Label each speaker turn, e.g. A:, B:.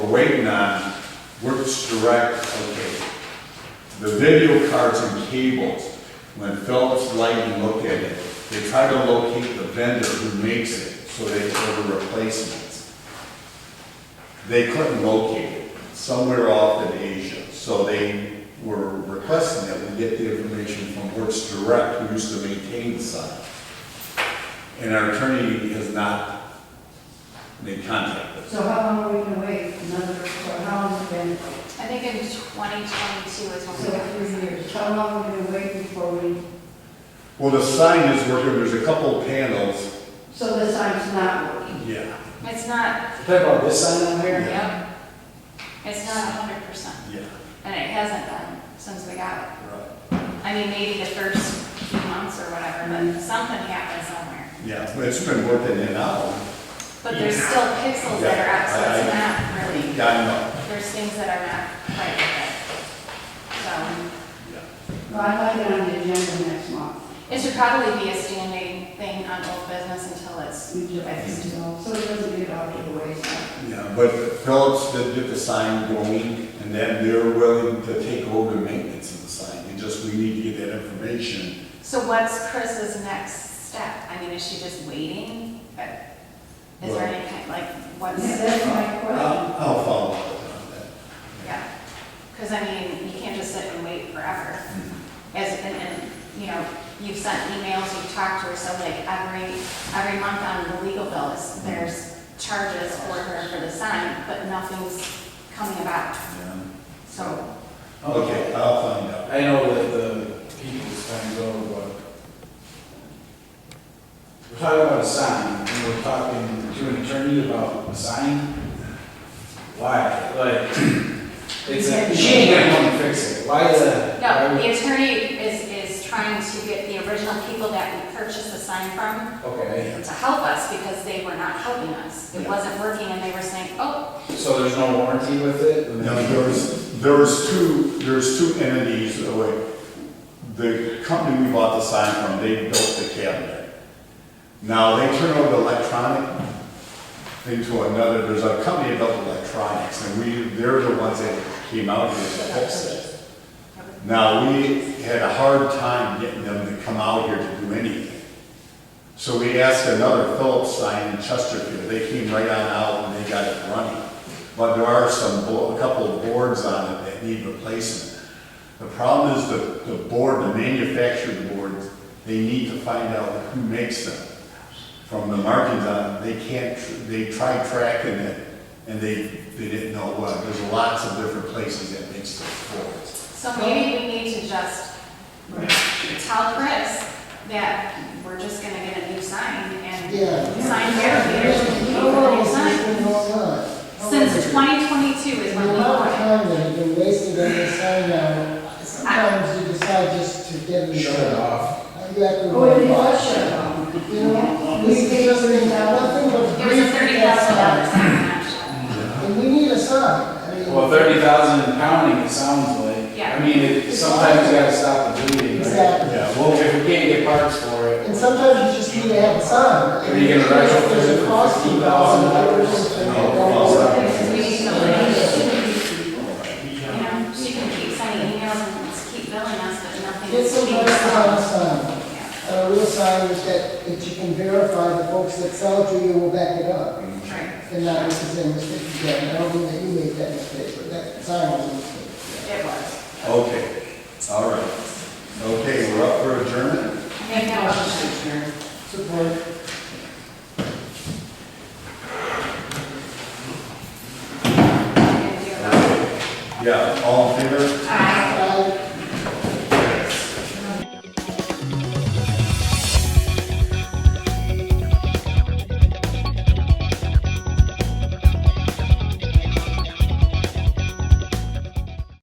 A: we're waiting on Works Direct, okay. The video cards and cables, when Phillips Lighting looked at it, they try to locate the vendor who makes it, so they order replacements. They couldn't locate it, somewhere off in Asia, so they were requesting that we get the information from Works Direct, who used to maintain the site. And our attorney has not made contact with us.
B: So how long are we gonna wait? Another, so how long has it been?
C: I think in 2022 is
B: So
C: when
B: three years. How long are we gonna wait before we,
A: Well, the sign is working, there's a couple of panels.
B: so the sign's not working?
A: Yeah.
C: we, it's not,
D: Talking about this sign on there?
C: yep, it's not 100%,
A: Yeah,
C: and it hasn't been since we got it.
A: right,
C: I mean, maybe the first few months or whatever,
B: Mm-hmm.
C: but something happened somewhere.
A: yeah, but it's been working in and out.
C: But there's still pixels that are out, so it's not really,
A: Yeah,
C: there's things that are not quite right. So,
A: I know, yeah.
B: Well, I'd like it on the agenda next month.
C: it should probably be a standing thing on old business until it's
B: We just-
C: fixed.
B: So it doesn't get out of the way, so.
A: Yeah, but Phillips did get the sign going, and then they're willing to take over maintenance of the sign. And just, we need to get that information.
C: So what's Chris's next step? I mean, is she just waiting? But Is there any kind, like, what's?
B: Yeah, that's my question.
A: I'll I'll follow up on that.
C: Yeah, because I mean, you can't just sit and wait forever.
D: Mm-hmm.
C: As, and, and, you know, you've sent emails, you've talked to her, so like every, every month on the legal bills, there's charges for her for the sign, but nothing's coming about,
A: Yeah.
C: so.
A: Okay, I'll find out.
D: I know that the people's time's over, but we're talking about a sign, and we're talking to an attorney about a sign? Why? Like, it's a, she ain't gonna come and fix it. Why is that?
C: No, the attorney is, is trying to get the original people that we purchased the sign from
D: Okay,
C: to help us because they were not helping us. It wasn't working and they were saying, oh,
D: so there's no warranty with it?
A: Now, there's, there's two, there's two entities, that were- the company we bought the sign from, they built the cabinet. Now, they turn over electronic into another, there's a company that built electronics, and we, they're the ones that came out here to fix it. Now, we had a hard time getting them to come out here to do anything. So we asked another Phillips sign in Chesterfield, they came right on out and they got it running. But there are some, bo- a couple of boards on it that need replacement. The problem is the, the board, the manufactured boards, they need to find out who makes them. From the markings on, it, they can't, tr- they tried tracking it and they, they didn't know what, there's lots of different places that makes those boards.
C: so maybe we need to just
B: Right.
C: tell Chris that we're just gonna get a new sign and
E: Yeah. Oh,
C: sign here,
E: How long
C: new
E: has this
C: sign.
E: been going on?
C: Since twenty twenty-two is
E: The
C: when we bought
E: amount of
C: it.
E: time that has been wasted on this sign now, sometimes you decide just to get it.
D: Shut it off.
E: You have to.
B: Oh, it was shut off.
E: You know, this is just been nothing but.
C: It was a thirty thousand dollar sign, not shut.
E: And we need a sign. I mean,
D: Well, thirty thousand and counting, it sounds like.
C: Yeah.
D: I mean, it, sometimes you gotta stop the bleeding, right?
E: Exactly.
A: Yeah,
D: Well,
A: well,
D: if we can't get parts for it.
E: And sometimes you just need to have a sign.
D: Are you gonna retrofit it for
E: Cost you
D: $15,000?
E: and-
A: No, well,
C: We need to, you know, she can keep sending emails and just keep billing us, but nothing
E: Get
C: is
E: some
C: being
E: nice kind of
C: solved.
E: sign.
C: Yeah,
E: a real sign is that, that you can verify the folks that sell it to you will back it up.
C: right.
E: And not this is a mistake again, I don't mean that you made that mistake, but that sign was a mistake.
C: It was.
A: okay, all right. Okay, we're up for adjournment?
C: Make that motion.
E: Support.
C: And do it.
A: Yeah, all in favor?